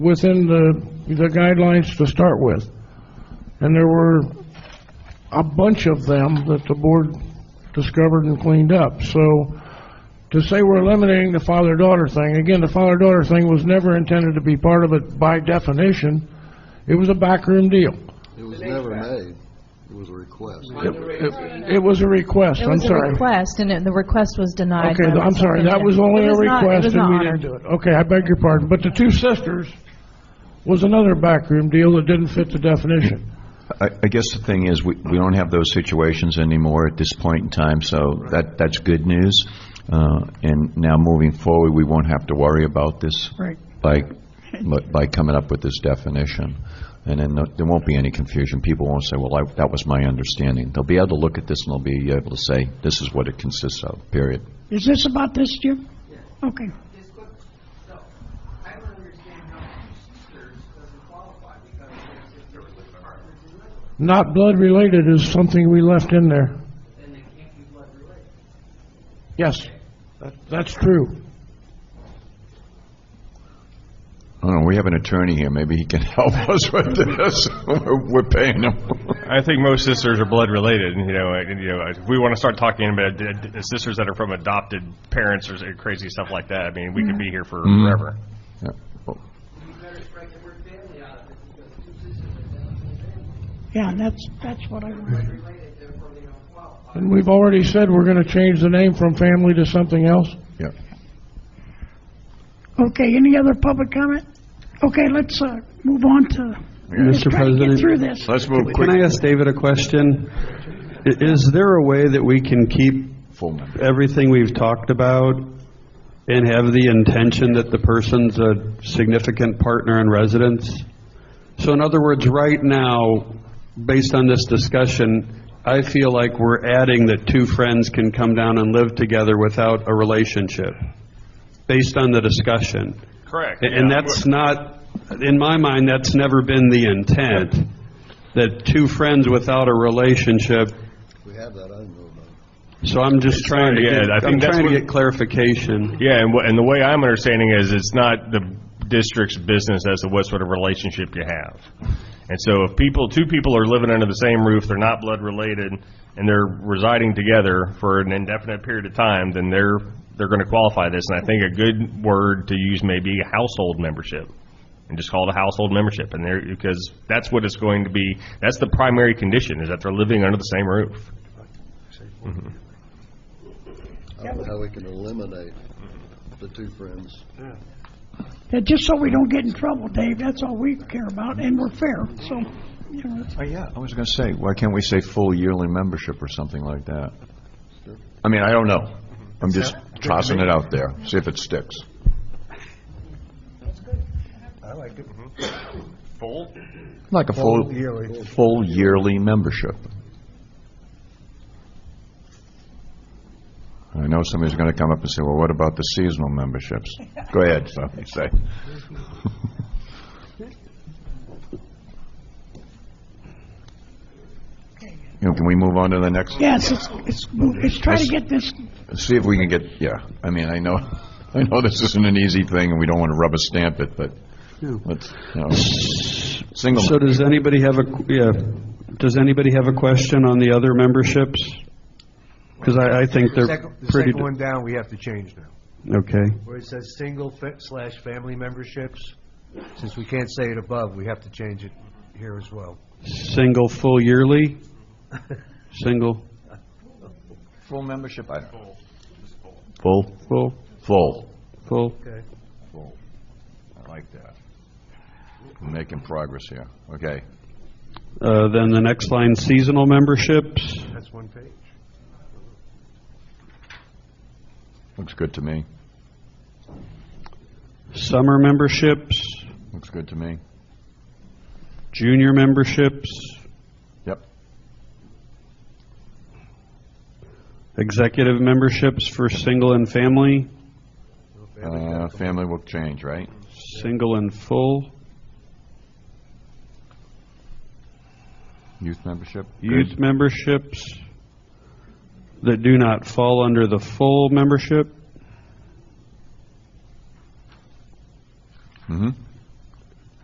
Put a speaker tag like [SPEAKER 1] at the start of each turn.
[SPEAKER 1] within the, the guidelines to start with. And there were a bunch of them that the board discovered and cleaned up. So to say we're eliminating the father-daughter thing, again, the father-daughter thing was never intended to be part of it by definition. It was a backroom deal.
[SPEAKER 2] It was never made. It was a request.
[SPEAKER 1] It- It it was a request,
[SPEAKER 3] It
[SPEAKER 1] I'm
[SPEAKER 3] was a
[SPEAKER 1] sorry.
[SPEAKER 3] request, and it- the request was denied.
[SPEAKER 1] Okay,
[SPEAKER 3] by
[SPEAKER 1] I'm
[SPEAKER 3] the
[SPEAKER 1] sorry, that
[SPEAKER 3] superintendent.
[SPEAKER 1] was only
[SPEAKER 3] It
[SPEAKER 1] a
[SPEAKER 3] was not- it
[SPEAKER 1] request
[SPEAKER 3] was
[SPEAKER 1] and we
[SPEAKER 3] not
[SPEAKER 1] didn't
[SPEAKER 3] honored.
[SPEAKER 1] do it. Okay, I beg your pardon, but the two sisters was another backroom deal that didn't fit the definition.
[SPEAKER 4] I I guess the thing is, we we don't have those situations anymore at this point in time, so that that's good news. Uh, And now moving forward, we won't have to worry about this.
[SPEAKER 1] Right.
[SPEAKER 4] By, by coming up with this definition. And then there won't be any confusion. People won't say, well, I- that was my understanding. They'll be able to look at this and they'll be able to say, this is what it consists of, period.
[SPEAKER 5] Is this about this, Jim? Okay.
[SPEAKER 6] I don't understand how sisters doesn't qualify because they're sisters with partners in life,
[SPEAKER 1] Not blood-related is something we left in there.
[SPEAKER 6] then they can't be blood related.
[SPEAKER 1] Yes, that- that's true.
[SPEAKER 4] I don't know, we have an attorney here, maybe he can help us with this. We're we're paying him.
[SPEAKER 7] I think most sisters are blood related, and you know, and, you know, if we want to start talking about d- d- sisters that are from adopted parents or s- crazy stuff like that, I mean,
[SPEAKER 8] Mm-hmm.
[SPEAKER 7] we could be here for forever.
[SPEAKER 4] Yeah. Oh,
[SPEAKER 6] You better strike the word family out of it because two sisters are not family.
[SPEAKER 5] Yeah, that's, that's what I wanted.
[SPEAKER 6] Related, therefore they don't qualify.
[SPEAKER 1] And we've already said we're going to change the name from family to something else.
[SPEAKER 4] Yeah.
[SPEAKER 5] Okay, any other public comment? Okay, let's, uh, move on to, let's
[SPEAKER 8] Mr.
[SPEAKER 5] try to get
[SPEAKER 8] President?
[SPEAKER 5] through this.
[SPEAKER 4] Let's move
[SPEAKER 8] Can I
[SPEAKER 4] quick.
[SPEAKER 8] ask David a question? I- Is there a way that we can keep
[SPEAKER 4] Full member.
[SPEAKER 8] everything we've talked about and have the intention that the person's a significant partner in residence? So in other words, right now, based on this discussion, I feel like we're adding that two friends can come down and live together without a relationship, based on the discussion.
[SPEAKER 7] Correct.
[SPEAKER 8] And- And
[SPEAKER 7] yeah.
[SPEAKER 8] that's not, in my mind, that's never been the intent, that two friends without a relationship,
[SPEAKER 2] We have that, I didn't know about it.
[SPEAKER 8] so I'm just trying to
[SPEAKER 7] yeah,
[SPEAKER 8] get,
[SPEAKER 7] I think
[SPEAKER 8] I'm
[SPEAKER 7] that's
[SPEAKER 8] trying to
[SPEAKER 7] what-
[SPEAKER 8] get clarification.
[SPEAKER 7] Yeah, and, wha- and the way I'm understanding is it's not the district's business as to what sort of relationship you have. And so if people, two people are living under the same roof, they're not blood related, and they're residing together for an indefinite period of time, then they're, they're going to qualify this. And I think a good word to use may be household membership. And just call it a household membership. And there, because that's what it's going to be, that's the primary condition, is that they're living under the same roof.
[SPEAKER 2] I don't know how we can eliminate the two friends.
[SPEAKER 5] Yeah, Just so we don't get in trouble, Dave, that's all we care about, and we're fair, so, you know, it's-
[SPEAKER 4] Oh, yeah, I was going to say, why can't we say full yearly membership or something like that? I mean, I don't know. I'm just tossing it out there, see if it sticks.
[SPEAKER 7] Full?
[SPEAKER 4] Like a full, full yearly membership. I know somebody's going to come up and say, well, what about the seasonal memberships? Go ahead, so you say. You know, Can we move on to the next?
[SPEAKER 5] yes, it's, it's, it's try to get this,
[SPEAKER 4] see if we can get, yeah, I mean, I know, I know this isn't an easy thing, and we don't want to rubber stamp it, but let's, you know, single,
[SPEAKER 8] So does anybody have a, qu- yeah, does anybody have a question on the other memberships? Because I, I think
[SPEAKER 9] The
[SPEAKER 8] they're
[SPEAKER 9] second- The
[SPEAKER 8] pretty,
[SPEAKER 9] second one down, we have to change now,
[SPEAKER 8] okay.
[SPEAKER 9] where it says single fa- slash family memberships. Since we can't say it above, we have to change it here as well.
[SPEAKER 8] Single, full yearly? Single,
[SPEAKER 4] full membership, I Full,
[SPEAKER 8] full,
[SPEAKER 4] full,
[SPEAKER 8] full?
[SPEAKER 9] Okay.
[SPEAKER 4] full. I like that. We're Making progress here, okay.
[SPEAKER 8] Uh, Then the next line, seasonal memberships?
[SPEAKER 9] That's one page.
[SPEAKER 4] Looks good to me,
[SPEAKER 8] summer memberships,
[SPEAKER 4] looks good to me.
[SPEAKER 8] junior memberships,
[SPEAKER 4] Yep,
[SPEAKER 8] executive memberships for single and family,
[SPEAKER 4] uh, family will change, right?
[SPEAKER 8] single and full,
[SPEAKER 4] Youth membership?
[SPEAKER 8] youth memberships that do not fall under the full membership,
[SPEAKER 4] Mm-hmm,